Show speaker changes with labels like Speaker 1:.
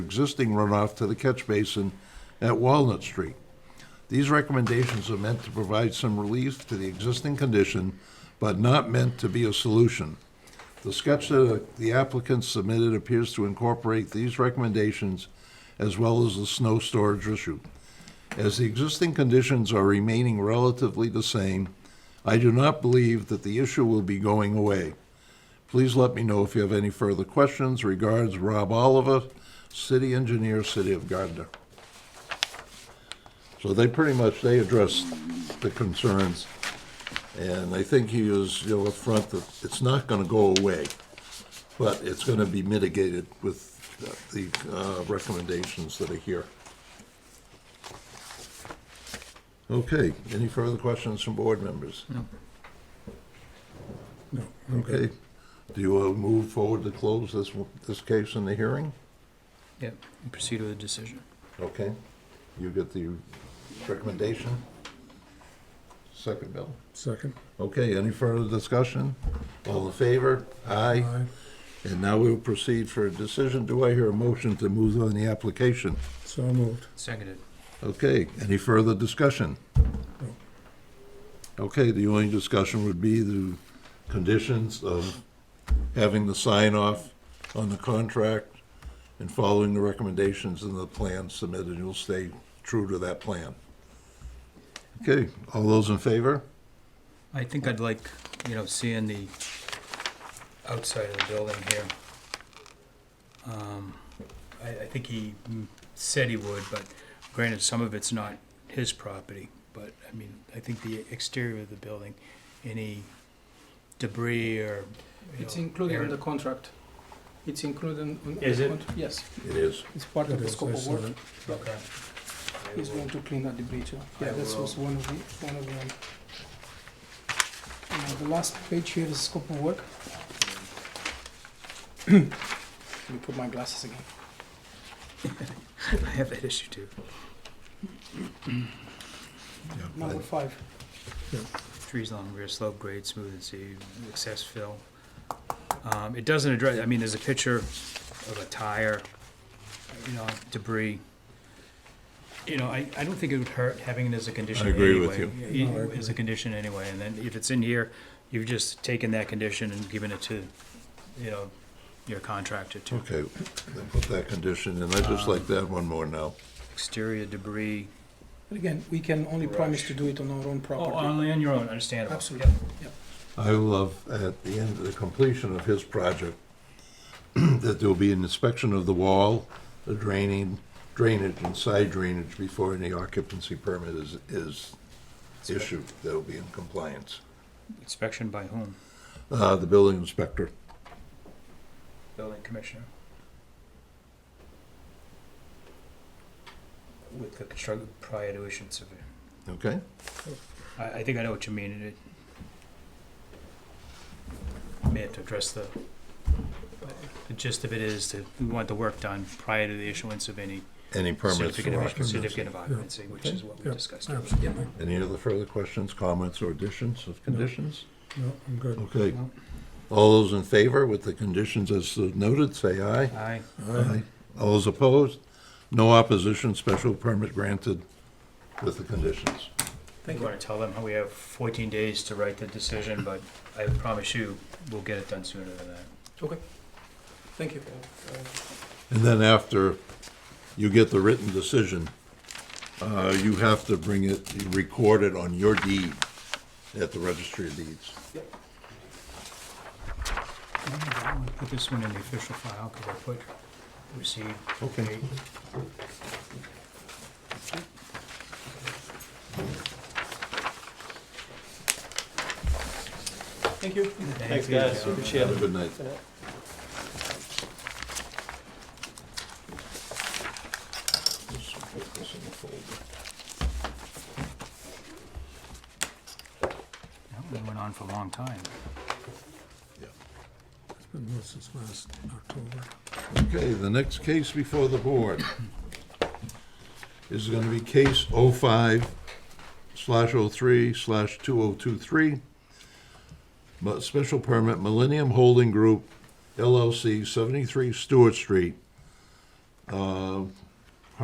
Speaker 1: existing runoff to the catch basin at Walnut Street. These recommendations are meant to provide some relief to the existing condition, but not meant to be a solution. The sketch that the applicant submitted appears to incorporate these recommendations as well as the snow storage issue. As the existing conditions are remaining relatively the same, I do not believe that the issue will be going away. Please let me know if you have any further questions. Regards, Rob Oliver, City Engineer, City of Gardner. So they pretty much, they addressed the concerns. And I think he is, you know, upfront that it's not gonna go away, but it's gonna be mitigated with the uh, recommendations that are here. Okay, any further questions from board members?
Speaker 2: No,
Speaker 1: Okay, do you uh, move forward to close this, this case in the hearing?
Speaker 3: Yep, and proceed with a decision.
Speaker 1: Okay, you get the recommendation? Second, Bill?
Speaker 2: Second.
Speaker 1: Okay, any further discussion? All in favor? Aye. And now we will proceed for a decision. Do I hear a motion to move on the application?
Speaker 2: So moved.
Speaker 3: Seconded.
Speaker 1: Okay, any further discussion? Okay, the only discussion would be the conditions of having the sign off on the contract and following the recommendations in the plan submitted. You'll stay true to that plan. Okay, all those in favor?
Speaker 3: I think I'd like, you know, seeing the outside of the building here. Um, I, I think he mm, said he would, but granted, some of it's not his property. But, I mean, I think the exterior of the building, any debris or, you
Speaker 4: It's
Speaker 3: know,
Speaker 4: included in
Speaker 3: air-
Speaker 4: the contract. It's included in. in
Speaker 3: Is
Speaker 4: the
Speaker 3: it?
Speaker 4: contract. Yes,
Speaker 1: It is.
Speaker 4: it's part of
Speaker 2: It
Speaker 4: the
Speaker 2: is,
Speaker 4: scope
Speaker 2: I
Speaker 4: of
Speaker 2: saw
Speaker 4: work.
Speaker 2: it.
Speaker 3: Okay.
Speaker 4: He's going to clean up the breach. yeah.
Speaker 3: I
Speaker 4: Yeah, that
Speaker 3: will.
Speaker 4: was one of the, one of them. Now, the last page here is scope of work. Let me put my glasses again.
Speaker 3: I have that issue too.
Speaker 4: Number five.
Speaker 3: trees along rear slope, grade, smooth and seed, excess fill. Um, it doesn't address, I mean, there's a picture of a tire, you know, debris. You know, I, I don't think it would hurt having it as a condition
Speaker 1: I
Speaker 3: anyway.
Speaker 1: agree with
Speaker 2: you. No, I
Speaker 3: As a condition anyway, and then if it's in here, you've just taken that condition and given it to, you know, your contractor to
Speaker 1: Okay, then put that condition in. I'd just like to add one more now.
Speaker 3: exterior debris.
Speaker 4: But again, we can only promise to do it on our own
Speaker 3: Oh,
Speaker 4: property.
Speaker 3: only on your own, understandable.
Speaker 4: Absolutely.
Speaker 1: I love at the end, the completion of his project, that there will be an inspection of the wall, the draining, drainage and side drainage before any occupancy permit is, is issued. That'll be in compliance.
Speaker 3: Inspection by whom?
Speaker 1: Uh, the building inspector.
Speaker 3: Building commissioner. With the construct, prior to issuance of, it.
Speaker 1: Okay?
Speaker 3: I, I think I know what you mean, and it may have to address the, the gist of it is that we want the work done prior to the issuance of any
Speaker 1: Any permits
Speaker 3: certificate
Speaker 1: for
Speaker 3: of,
Speaker 1: occupancy.
Speaker 3: certificate of occupancy, which is what we
Speaker 2: Yeah,
Speaker 3: discussed. earlier.
Speaker 2: Absolutely.
Speaker 1: Any other further questions, comments, or additions of conditions?
Speaker 2: No, I'm good.
Speaker 1: Okay.
Speaker 3: No.
Speaker 1: All those in favor with the conditions as noted, say aye.
Speaker 3: Aye,
Speaker 1: Aye. All those opposed? No opposition, special permit granted with the conditions.
Speaker 3: we
Speaker 4: Thank you.
Speaker 3: wanna tell them how we have fourteen days to write the decision, but I promise you, we'll get it done sooner than that.
Speaker 4: Okay. Thank you.
Speaker 1: And then after you get the written decision, uh, you have to bring it, you record it on your deed at the registry of deeds.
Speaker 3: I want to put this one in the official file, because I put received.
Speaker 1: Okay.
Speaker 3: date.
Speaker 4: Thank you.
Speaker 3: Thanks,
Speaker 5: guys. Appreciate
Speaker 1: Have a good night. Just put this in the folder.
Speaker 3: That one went on for a long time.
Speaker 2: It's been well since last October.
Speaker 1: Okay, the next case before the board is gonna be case 05 slash 03 slash 2023. But special permit Millennium Holding Group LLC, 73 Stewart Street, Uh,